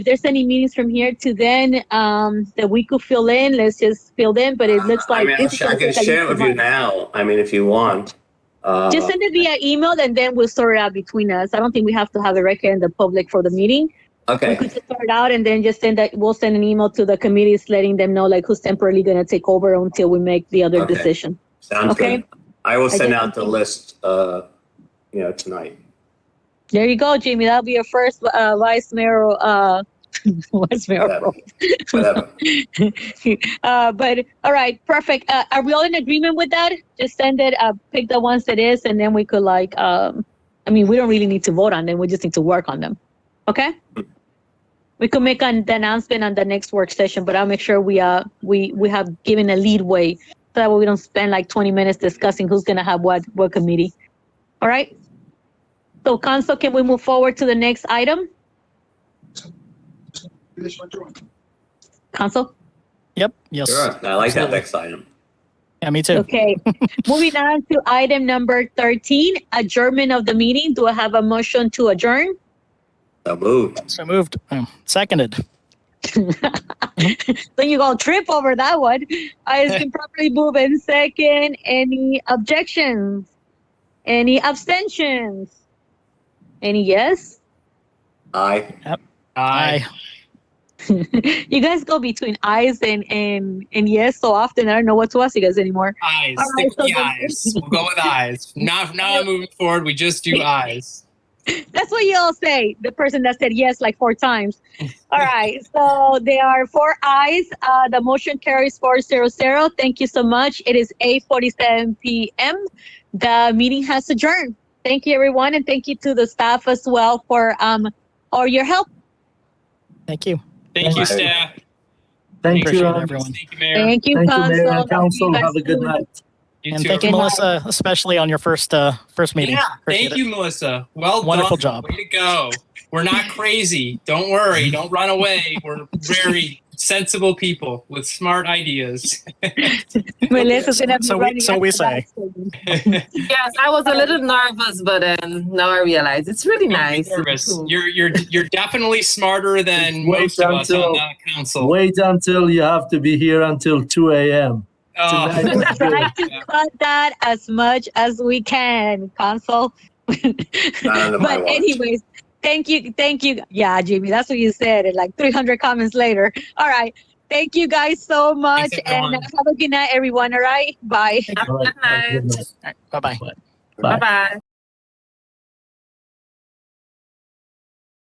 if there's any meetings from here to then, um, that we could fill in, let's just fill in, but it looks like. I, mean, this is I something can that share it with you can have. now. I mean, if you want. Uh, Just send it via email and then we'll sort it out between us. I don't think we have to have a record in the public for the meeting. We okay. could just sort it out and then just send that, we'll send an email to the committees letting them know like who's temporarily gonna take over until we make the other Okay. decision. Sounds okay. good. I will did send out the something. list, uh, you know, tonight. There you go, Jimmy. That'll be your first, uh, vice mayor, uh, vice mayor Whatever. role. Whatever. Uh, but all right, perfect. Uh, are we all in agreement with that? Just send it, uh, pick the ones that is, and then we could like, um, I mean, we don't really need to vote on them. We just need to work on them. Okay? We could make an the announcement on the next work session, but I'll make sure we, uh, we, we have given a leadway. So that way we don't spend like twenty minutes discussing who's gonna have what, what committee. All right? So council, can we move forward to the next item? Council? Yep. Yes. Sure. I like that Absolutely. next item. Yeah, me too. Okay, moving on to item number thirteen, adjournment of the meeting. Do I have a motion to adjourn? So moved. So moved. Um, seconded. Then you go trip over that one. I has been properly moved and second. Any objections? Any abstentions? Any yes? Aye. Aye. You guys go between eyes and and and yes so often. I don't know what to ask you guys anymore. Eyes. All right, Stick so with the then- eyes. We'll go with eyes. Not now moving forward. We just do eyes. That's what you all say. The person that said yes like four times. All right. So there are four ayes. Uh, the motion carries four zero zero. Thank you so much. It is eight forty seven p.m. The meeting has adjourned. Thank you, everyone, and thank you to the staff as well for um or your help. Thank you. Thank you, Right. staff. Thank Appreciate you, it, um, everyone. Thank you, Mayor. Thank you, Thank council. you, Mayor and Council. Thank you, Have a good guys. night. You and too. thank you, Good night. Melissa, especially on your first uh, first meeting. Yeah, Appreciate thank it. you, Melissa. Well Wonderful job. done. Way to go. We're not crazy. Don't worry. Don't run away. We're very sensible people with smart ideas. Melissa's gonna be So we- running so we after that say. statement. Yes, I was a little nervous, but um, now I realize it's really nice. Nervous. You're you're you're definitely smarter than Wait most of us on until- the council. Wait until you have to be here until two AM. Oh, Tonight. Try to cut that as much as we can, council. Not under my but watch. anyways thank you thank you yeah jimmy that's what you said and like 300 comments later all right thank you guys so much and everyone. have a good night everyone all right bye Have a good night. All right, bye bye. Bye bye.